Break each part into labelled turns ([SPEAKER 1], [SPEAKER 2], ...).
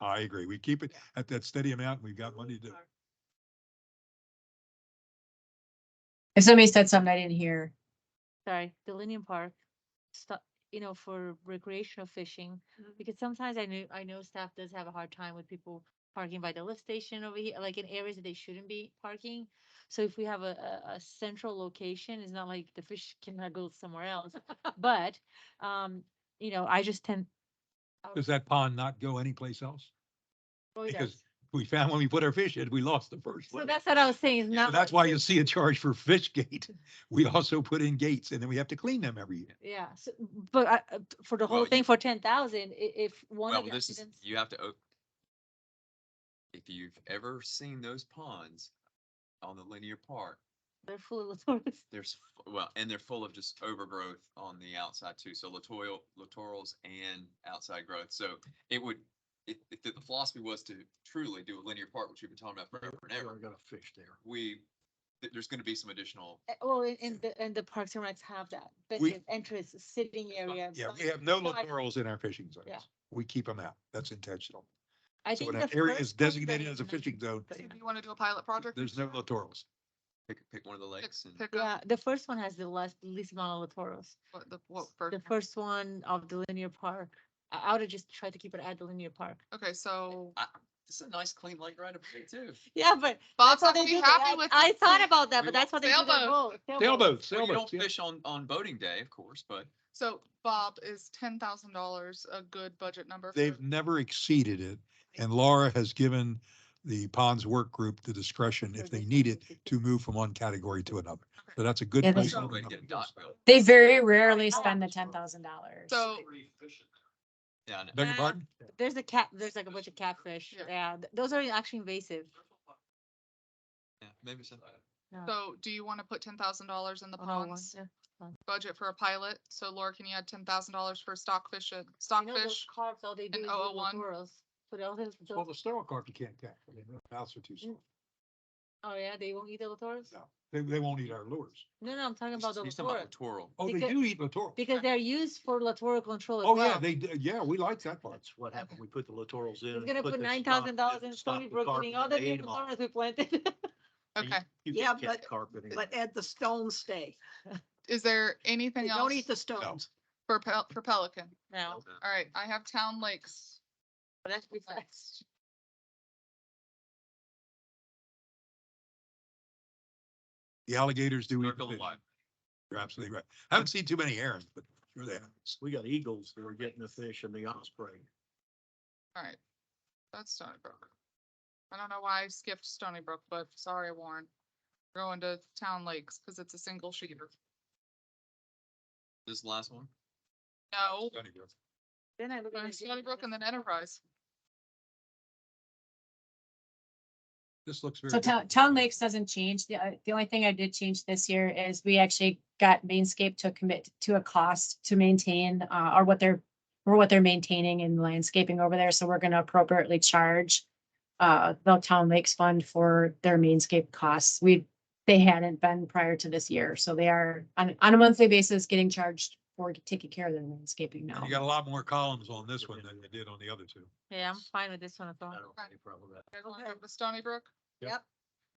[SPEAKER 1] I agree. We keep it at that steady amount. We've got money to,
[SPEAKER 2] If somebody said something I didn't hear,
[SPEAKER 3] sorry, Delinium Park, stu- you know, for recreational fishing. Because sometimes I know, I know staff does have a hard time with people parking by the lift station over here, like in areas that they shouldn't be parking. So if we have a, a, a central location, it's not like the fish cannot go somewhere else. But, um, you know, I just tend.
[SPEAKER 1] does that pond not go anyplace else?
[SPEAKER 3] Roy
[SPEAKER 1] because
[SPEAKER 3] does.
[SPEAKER 1] We found when we put our fish in, we lost the first
[SPEAKER 3] So
[SPEAKER 1] one.
[SPEAKER 3] that's what I was saying, is
[SPEAKER 1] So
[SPEAKER 3] not.
[SPEAKER 1] that's
[SPEAKER 3] like
[SPEAKER 1] why you see a charge for fish gate. We also put in gates and then we have to clean them every year.
[SPEAKER 3] the- Yeah, so, but I, uh, t- for the
[SPEAKER 4] Well,
[SPEAKER 3] whole
[SPEAKER 4] you-
[SPEAKER 3] thing, for ten thousand, i- if one
[SPEAKER 4] Well,
[SPEAKER 3] of the
[SPEAKER 4] this is,
[SPEAKER 3] accidents.
[SPEAKER 4] you have to. o- If you've ever seen those ponds on the linear park,
[SPEAKER 3] They're full of tourists.
[SPEAKER 4] there's, f- well, and they're full of just overgrowth on the outside too. So littoral, littorals and outside growth. So it would, if, if the philosophy was to truly do a linear park, which we've been talking about forever and ever,
[SPEAKER 1] got a fish there.
[SPEAKER 4] we, th- there's gonna be some additional,
[SPEAKER 3] Uh, Well, and- and the, and the Parks and Recs have that, but
[SPEAKER 1] We-
[SPEAKER 3] the entrance, sitting area.
[SPEAKER 1] Yeah, we
[SPEAKER 3] side-
[SPEAKER 1] have no
[SPEAKER 3] side-
[SPEAKER 1] littorals in our fishing
[SPEAKER 3] Yeah.
[SPEAKER 1] zones. We keep them out. That's intentional.
[SPEAKER 3] I
[SPEAKER 1] So
[SPEAKER 3] think
[SPEAKER 1] when an
[SPEAKER 3] the
[SPEAKER 1] area
[SPEAKER 3] first
[SPEAKER 1] is
[SPEAKER 3] one that
[SPEAKER 1] designated
[SPEAKER 3] is
[SPEAKER 1] as a
[SPEAKER 3] not-
[SPEAKER 1] fishing zone,
[SPEAKER 3] doesn't
[SPEAKER 5] If
[SPEAKER 3] have-
[SPEAKER 5] you want to do a pilot project.
[SPEAKER 1] there's no littorals.
[SPEAKER 4] pick, pick one of the lakes and.
[SPEAKER 5] Pick
[SPEAKER 3] Yeah,
[SPEAKER 5] up
[SPEAKER 3] the first one has the less, least amount of Latoros.
[SPEAKER 5] what the, what
[SPEAKER 3] The
[SPEAKER 5] first.
[SPEAKER 3] first one of the linear park, I, I would have just tried to keep it at the linear park.
[SPEAKER 5] Okay, so
[SPEAKER 4] I- It's a nice clean lake right up here too.
[SPEAKER 3] Yeah, but
[SPEAKER 5] Bob's
[SPEAKER 3] that's how
[SPEAKER 5] not
[SPEAKER 3] they
[SPEAKER 5] gonna be
[SPEAKER 3] do that.
[SPEAKER 5] happy
[SPEAKER 3] I
[SPEAKER 5] with.
[SPEAKER 3] I
[SPEAKER 5] this.
[SPEAKER 3] thought about that,
[SPEAKER 4] We
[SPEAKER 3] but that's what they do.
[SPEAKER 5] sailboat.
[SPEAKER 1] Sailboats,
[SPEAKER 4] Well, you don't
[SPEAKER 1] sailboats. yeah.
[SPEAKER 4] fish on, on boating day, of course, but
[SPEAKER 5] So Bob, is ten thousand dollars a good budget number? for-
[SPEAKER 1] They've never exceeded it. And Laura has given the ponds work group the discretion if they need it to move from one category to another. So that's a good.
[SPEAKER 2] Yeah, they-
[SPEAKER 1] place
[SPEAKER 4] there's
[SPEAKER 1] to
[SPEAKER 4] no way to
[SPEAKER 1] open
[SPEAKER 4] get a
[SPEAKER 1] up.
[SPEAKER 4] dock built.
[SPEAKER 2] they very rarely spend
[SPEAKER 3] oh.
[SPEAKER 2] the ten thousand dollars.
[SPEAKER 5] So,
[SPEAKER 4] Yeah, I know.
[SPEAKER 1] Beg your
[SPEAKER 3] Uh,
[SPEAKER 1] pardon?
[SPEAKER 3] There's a cat, there's like a bunch of catfish.
[SPEAKER 5] Yeah.
[SPEAKER 3] Yeah, th- those are actually invasive.
[SPEAKER 4] Yeah, maybe so.
[SPEAKER 3] Yeah.
[SPEAKER 5] so do you want to put ten thousand dollars in the
[SPEAKER 3] On our one,
[SPEAKER 5] ponds
[SPEAKER 3] yeah.
[SPEAKER 5] budget for a pilot? So Laura, can you add ten thousand dollars for stockfish, and
[SPEAKER 3] You know those
[SPEAKER 5] stockfish?
[SPEAKER 3] carbs, all they do is little
[SPEAKER 5] 001?
[SPEAKER 3] Latoros. Put all those,
[SPEAKER 1] Well, the
[SPEAKER 3] those-
[SPEAKER 1] sterile carp you can't catch. I mean, their mouths are
[SPEAKER 3] Mm.
[SPEAKER 1] too small.
[SPEAKER 3] oh yeah, they won't eat the Latoros?
[SPEAKER 1] No, they, they won't eat our lures.
[SPEAKER 3] No, no, I'm talking
[SPEAKER 4] He's
[SPEAKER 3] about the
[SPEAKER 4] he's talking
[SPEAKER 3] Latour,
[SPEAKER 4] about littoral.
[SPEAKER 1] Oh, they
[SPEAKER 3] Because-
[SPEAKER 1] do eat littoral.
[SPEAKER 3] because they're used for Latour control as
[SPEAKER 1] Oh, yeah,
[SPEAKER 3] well.
[SPEAKER 1] they, do. yeah, we like that part.
[SPEAKER 6] That's what happened. We put the littorals in.
[SPEAKER 3] He's gonna put
[SPEAKER 6] the
[SPEAKER 3] nine
[SPEAKER 6] stock-
[SPEAKER 3] thousand dollars
[SPEAKER 6] the
[SPEAKER 3] in
[SPEAKER 6] stock
[SPEAKER 3] Stony
[SPEAKER 6] with
[SPEAKER 3] Brook,
[SPEAKER 6] carp
[SPEAKER 3] getting
[SPEAKER 6] and
[SPEAKER 3] all the
[SPEAKER 6] they ate
[SPEAKER 3] big
[SPEAKER 6] 'em all.
[SPEAKER 3] Latours we planted.
[SPEAKER 6] And you-
[SPEAKER 5] Okay,
[SPEAKER 6] you
[SPEAKER 7] Yeah,
[SPEAKER 6] can't catch
[SPEAKER 7] but-
[SPEAKER 6] carp anymore.
[SPEAKER 7] But Ed, the stones stay.
[SPEAKER 5] is there anything
[SPEAKER 7] They
[SPEAKER 5] else
[SPEAKER 7] don't eat the stones.
[SPEAKER 5] for Pel- for Pelican?
[SPEAKER 3] No,
[SPEAKER 5] All right, I have town lakes.
[SPEAKER 3] but that's besides.
[SPEAKER 5] next.
[SPEAKER 1] The alligators do eat.
[SPEAKER 4] Circle
[SPEAKER 1] fish.
[SPEAKER 4] alive.
[SPEAKER 1] You're absolutely right. Haven't seen too many herons, but sure they have.
[SPEAKER 6] We got eagles that are getting the fish and the osprey.
[SPEAKER 5] All right, that's Stony Brook. I don't know why I skipped Stony Brook, but sorry, Warren. We're Going to town lakes because it's a single sheeter.
[SPEAKER 4] This last one.
[SPEAKER 5] No,
[SPEAKER 3] Then I look at.
[SPEAKER 5] going
[SPEAKER 3] it,
[SPEAKER 5] Stony Brook and
[SPEAKER 3] it's-
[SPEAKER 5] then Enterprise.
[SPEAKER 1] This looks very.
[SPEAKER 2] So town,
[SPEAKER 1] different.
[SPEAKER 2] town lakes doesn't change. The, uh, the only thing I did change this year is we actually got Mainscape to commit to a cost to maintain, uh, or what they're, or what they're maintaining and landscaping over there. So we're gonna appropriately charge uh, the town lakes fund for their mainscape costs. We, they hadn't been prior to this year. So they are on, on a monthly basis getting charged for taking care of their landscaping now.
[SPEAKER 1] You got a lot more columns on this one than you did on the other two.
[SPEAKER 3] Yeah, I'm fine with this one as
[SPEAKER 6] I
[SPEAKER 3] well.
[SPEAKER 6] don't have any problem with that.
[SPEAKER 5] You guys wanna
[SPEAKER 7] Okay.
[SPEAKER 5] go to Stony Brook?
[SPEAKER 6] Yep.
[SPEAKER 7] Yep.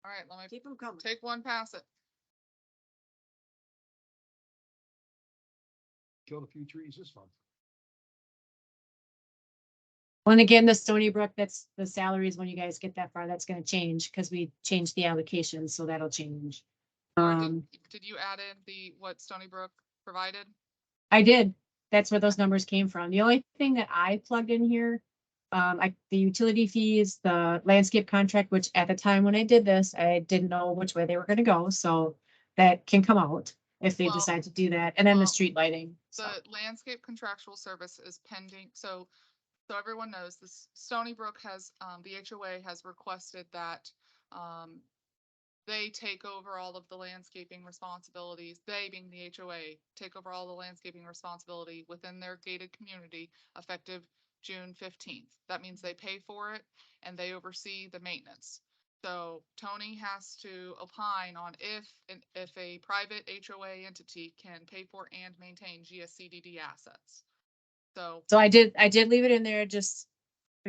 [SPEAKER 5] All right, let me
[SPEAKER 7] Keep them coming.
[SPEAKER 5] take one, pass it.
[SPEAKER 1] Killed a few trees this month.
[SPEAKER 2] Well, and again, the Stony Brook, that's the salaries, when you guys get that far, that's gonna change, because we changed the allocation, so that'll change.
[SPEAKER 5] Or did-
[SPEAKER 2] Um,
[SPEAKER 5] Did you add in the, what Stony Brook provided?
[SPEAKER 2] I did, that's where those numbers came from. The only thing that I plugged in here, um, I, the utility fees, the landscape contract, which at the time when I did this, I didn't know which way they were gonna go, so that can come out if they
[SPEAKER 5] Well-
[SPEAKER 2] decide to do that, and then the
[SPEAKER 5] well,
[SPEAKER 2] street lighting. so.
[SPEAKER 5] The landscape contractual service is pending, so, so everyone knows this, Stony Brook has, um, the HOA has requested that, um, they take over all of the landscaping responsibilities, they being the HOA, take over all the landscaping responsibility within their gated community effective June fifteenth. That means they pay for it and they oversee the maintenance. So Tony has to opine on if, an- if a private HOA entity can pay for and maintain GSCDD assets. So
[SPEAKER 2] So I did, I did leave it in there just